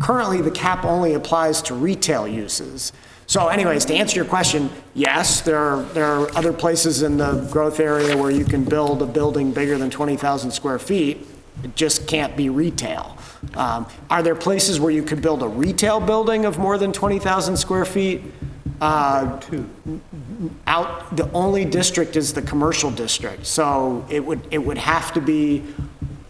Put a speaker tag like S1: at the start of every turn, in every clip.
S1: Currently, the cap only applies to retail uses. So anyways, to answer your question, yes, there are, there are other places in the growth area where you can build a building bigger than 20,000 square feet. It just can't be retail. Um, Are there places where you could build a retail building of more than 20,000 square feet? Uh, out, the only district is the commercial district, so it would, it would have to be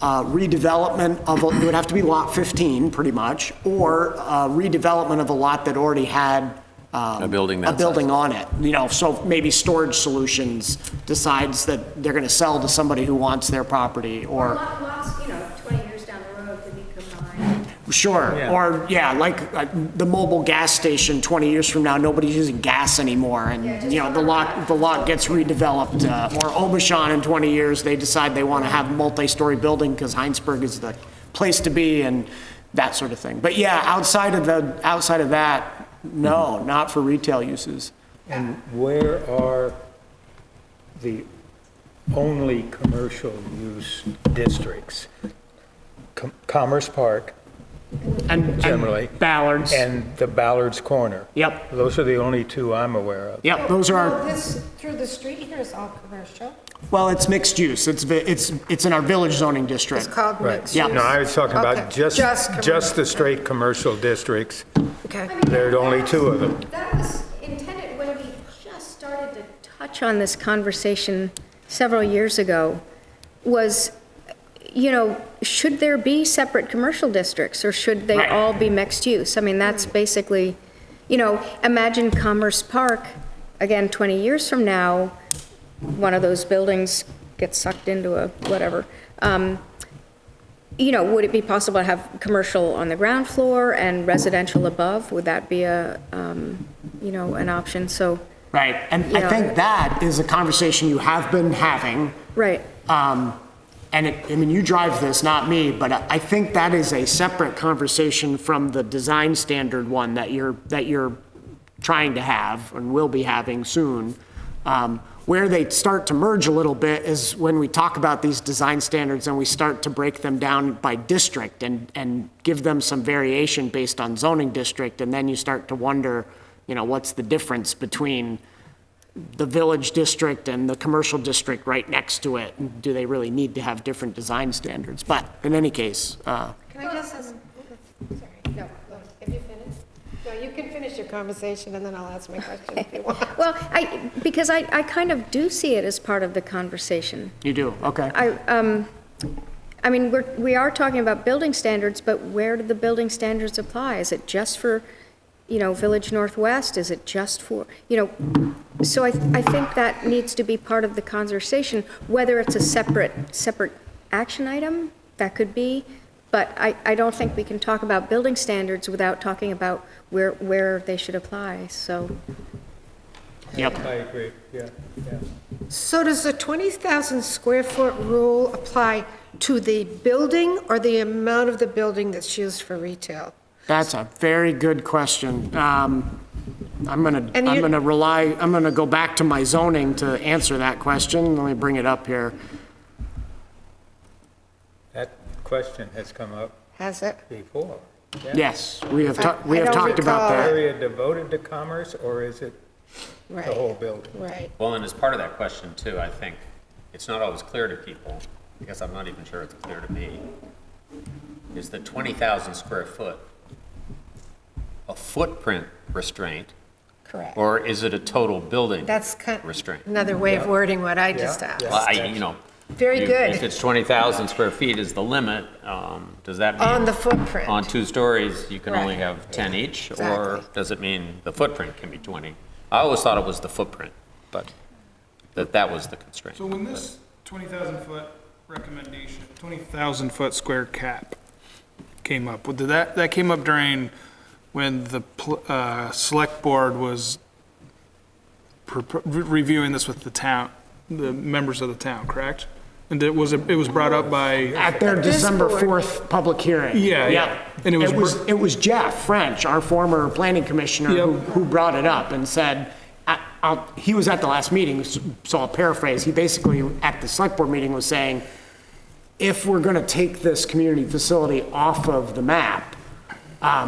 S1: uh, redevelopment of, a- it would have to be Lot 15, pretty much, or uh, redevelopment of a lot that already had. um,
S2: A building that
S1: A
S2: size.
S1: building on it, you know, so maybe Storage Solutions decides that they're gonna sell to somebody who wants their property, or,
S3: Lot- Lots, you know, 20 years down the road could be combined.
S1: sure, or, yeah, like uh, the mobile gas station 20 years from now, nobody's using gas anymore, and
S3: Yeah, just
S1: you know, the lot, the lot gets redeveloped, uh, or Obashan in 20 years, they decide they want to have multi-story building because Heinsberg is the place to be and that sort of thing. But yeah, outside of the, outside of that, no, not for retail uses.
S4: And where are the only commercial use districts? Com- Commerce Park
S1: And- and
S4: Generally.
S1: Ballards.
S4: and the Ballard's Corner.
S1: Yep.
S4: Those are the only two I'm aware of.
S1: Yep, those are,
S5: Well,
S1: our-
S5: this, through the street here is all commercial.
S1: well, it's mixed use. It's, vi- it's, it's in our village zoning district.
S5: It's called mixed
S1: Yeah.
S5: use.
S4: No, I was talking about
S5: Okay,
S4: just, just
S5: commercial.
S4: the straight commercial districts.
S5: Okay.
S4: There are only two of them.
S3: That was intended when we just started to touch on this conversation several years ago, was, you know, should there be separate commercial districts, or should they
S1: Right.
S3: all be mixed use? I mean, that's basically, you know, imagine Commerce Park, again, 20 years from now, one of those buildings gets sucked into a whatever. Um, You know, would it be possible to have commercial on the ground floor and residential above? Would that be a, um, you know, an option? So,
S1: Right, and I
S3: Yeah.
S1: think that is a conversation you have been having.
S3: right,
S1: Um, And it, I mean, you drive this, not me, but I- I think that is a separate conversation from the design standard one that you're, that you're trying to have and will be having soon. Um, Where they start to merge a little bit is when we talk about these design standards and we start to break them down by district and, and give them some variation based on zoning district. And then you start to wonder, you know, what's the difference between, the village district and the commercial district right next to it? and Do they really need to have different design standards? But in any case, uh,
S5: Can I just ask? Sorry, no, no, have you finished? No, you can finish your conversation and then I'll ask my question if you want.
S3: well, I, because I, I kind of do see it as part of the conversation.
S1: you do, okay.
S3: I, um, I mean, we're, we are talking about building standards, but where do the building standards apply? Is it just for, you know, Village Northwest? Is it just for, you know, so I, I think that needs to be part of the conversation, whether it's a separate, separate action item, that could be, but I, I don't think we can talk about building standards without talking about where, where they should apply, so.
S1: Yep.
S4: I agree, yeah, yeah.
S5: So does the 20,000 square foot rule apply to the building or the amount of the building that's used for retail?
S1: That's a very good question. Um, I'm gonna,
S5: And
S1: I'm
S5: you-
S1: gonna rely, I'm gonna go back to my zoning to answer that question. Let me bring it up here.
S4: That question has come up
S5: Has it?
S4: before.
S1: Yes, we have, ta- we
S5: I- I
S1: have
S5: don't
S1: talked about
S5: recall.
S1: that.
S4: Area devoted to commerce, or is it
S5: Right,
S4: the whole building?
S5: right.
S6: Well, and as part of that question too, I think it's not always clear to people, because I'm not even sure it's clear to me, is the 20,000 square foot a footprint restraint,
S5: Correct.
S6: or is it a total building?
S5: That's kind,
S6: Restraint.
S5: another way of wording what I just
S4: Yeah,
S5: asked.
S6: Well, I, you know.
S5: Very
S6: you-
S5: good.
S6: If it's 20,000 square feet is the limit, um, does that mean?
S5: On the footprint.
S6: On two stories, you can only
S5: Right.
S6: have 10 each? Or
S5: Exactly.
S6: does it mean the footprint can be 20? I always thought it was the footprint, but that that was the constraint.
S7: So when this twenty thousand foot recommendation, twenty thousand foot square cap came up, did that, that came up during when the, pl- uh, select board was pre- pre- reviewing this with the town, the members of the town, correct? And it was, it was brought up by,
S1: At their
S5: this
S1: December
S5: board.
S1: 4th public hearing.
S7: Yeah, yeah. And it was
S1: It
S7: br-
S1: was, it was Jeff French, our former planning commissioner, who,
S7: Yep.
S1: who brought it up and said, I- I'll, he was at the last meeting, s- so I'll paraphrase. He basically, at the select board meeting, was saying, if we're gonna take this community facility off of the map, um,